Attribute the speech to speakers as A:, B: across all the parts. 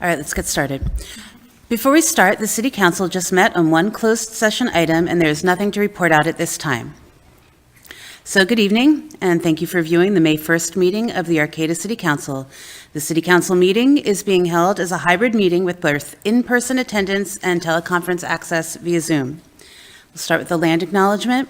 A: All right, let's get started. Before we start, the city council just met on one closed session item, and there is nothing to report out at this time. So good evening, and thank you for viewing the May 1st meeting of the Arcata City Council. The city council meeting is being held as a hybrid meeting with both in-person attendance and teleconference access via Zoom. We'll start with the land acknowledgement.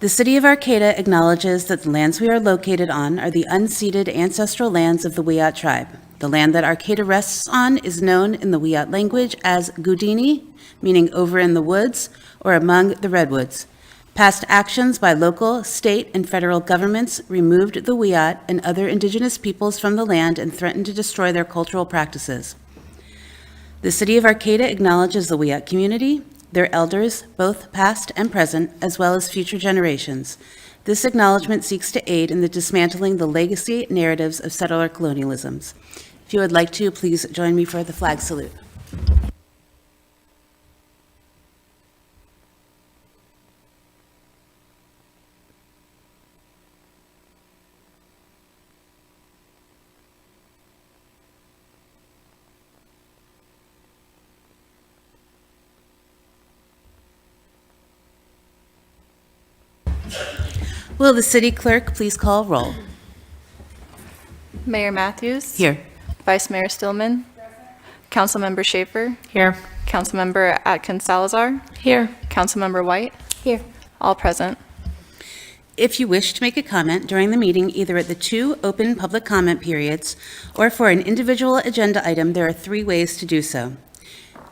A: The City of Arcata acknowledges that the lands we are located on are the unceded ancestral lands of the Wiat tribe. The land that Arcata rests on is known in the Wiat language as Gudini, meaning over in the woods or among the redwoods. Past actions by local, state, and federal governments removed the Wiat and other indigenous peoples from the land and threatened to destroy their cultural practices. The City of Arcata acknowledges the Wiat community, their elders, both past and present, as well as future generations. This acknowledgement seeks to aid in the dismantling the legacy narratives of settler colonialisms. If you would like to, please join me for the flag salute. Will the city clerk please call roll?
B: Mayor Matthews.
A: Here.
B: Vice Mayor Stillman. Councilmember Schaefer.
C: Here.
B: Councilmember Atkins Salazar.
C: Here.
B: Councilmember White. Here. All present.
A: If you wish to make a comment during the meeting, either at the two open public comment periods or for an individual agenda item, there are three ways to do so.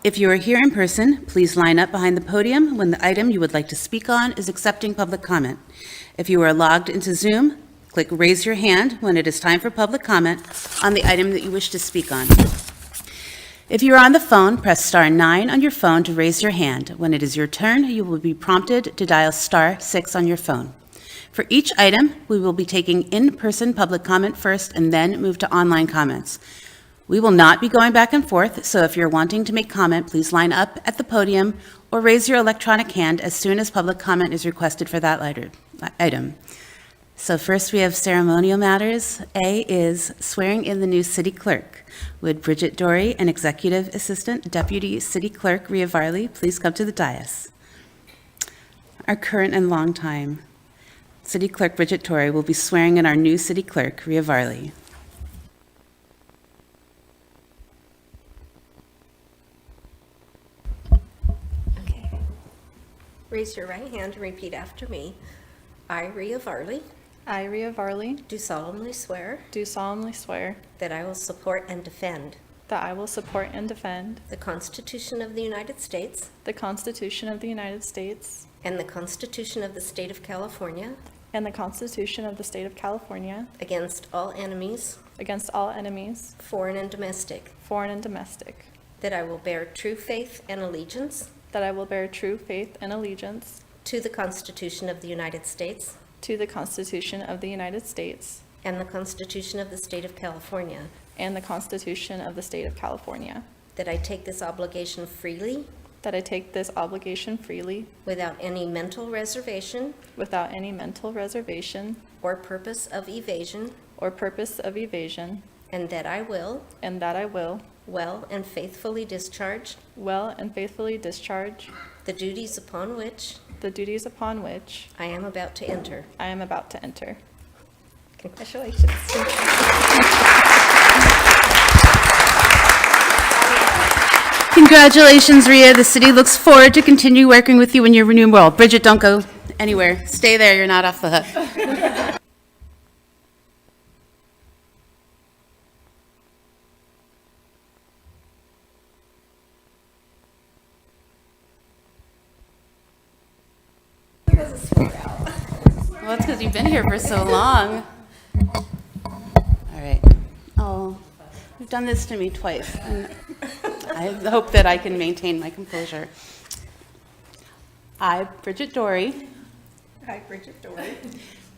A: If you are here in person, please line up behind the podium when the item you would like to speak on is accepting public comment. If you are logged into Zoom, click Raise Your Hand when it is time for public comment on the item that you wish to speak on. If you are on the phone, press star nine on your phone to raise your hand. When it is your turn, you will be prompted to dial star six on your phone. For each item, we will be taking in-person public comment first and then move to online comments. We will not be going back and forth, so if you're wanting to make comment, please line up at the podium or raise your electronic hand as soon as public comment is requested for that lighter- item. So first, we have ceremonial matters. A is swearing in the new city clerk. Would Bridget Dory, an executive assistant deputy city clerk, Ria Varley, please come to the dais? Our current and longtime city clerk, Bridget Dory, will be swearing in our new city clerk, Ria Varley.
D: Okay. Raise your right hand and repeat after me. I, Rhea Varley,
B: I, Rhea Varley,
D: do solemnly swear
B: do solemnly swear
D: that I will support and defend
B: that I will support and defend
D: the Constitution of the United States
B: the Constitution of the United States
D: and the Constitution of the State of California
B: and the Constitution of the State of California
D: against all enemies,
B: against all enemies,
D: foreign and domestic,
B: foreign and domestic,
D: that I will bear true faith and allegiance
B: that I will bear true faith and allegiance
D: to the Constitution of the United States
B: to the Constitution of the United States
D: and the Constitution of the State of California,
B: and the Constitution of the State of California,
D: that I take this obligation freely
B: that I take this obligation freely
D: without any mental reservation
B: without any mental reservation
D: or purpose of evasion,
B: or purpose of evasion,
D: and that I will,
B: and that I will,
D: well and faithfully discharge,
B: well and faithfully discharge,
D: the duties upon which
B: the duties upon which
D: I am about to enter.
B: I am about to enter.
D: Congratulations.
A: Congratulations, Ria. The city looks forward to continue working with you in your new role. Bridget, don't go anywhere. Stay there. You're not off the hook. Well, it's because you've been here for so long. All right. Oh, you've done this to me twice. and I hope that I can maintain my composure. I, Bridget Dory,
D: I, Bridget Dory,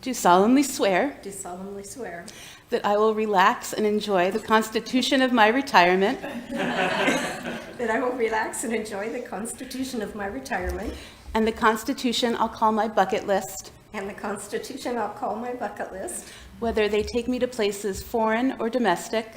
A: do solemnly swear
D: do solemnly swear
A: that I will relax and enjoy the Constitution of my retirement
D: that I will relax and enjoy the Constitution of my retirement
A: and the Constitution I'll call my bucket list,
D: and the Constitution I'll call my bucket list,
A: whether they take me to places foreign or domestic,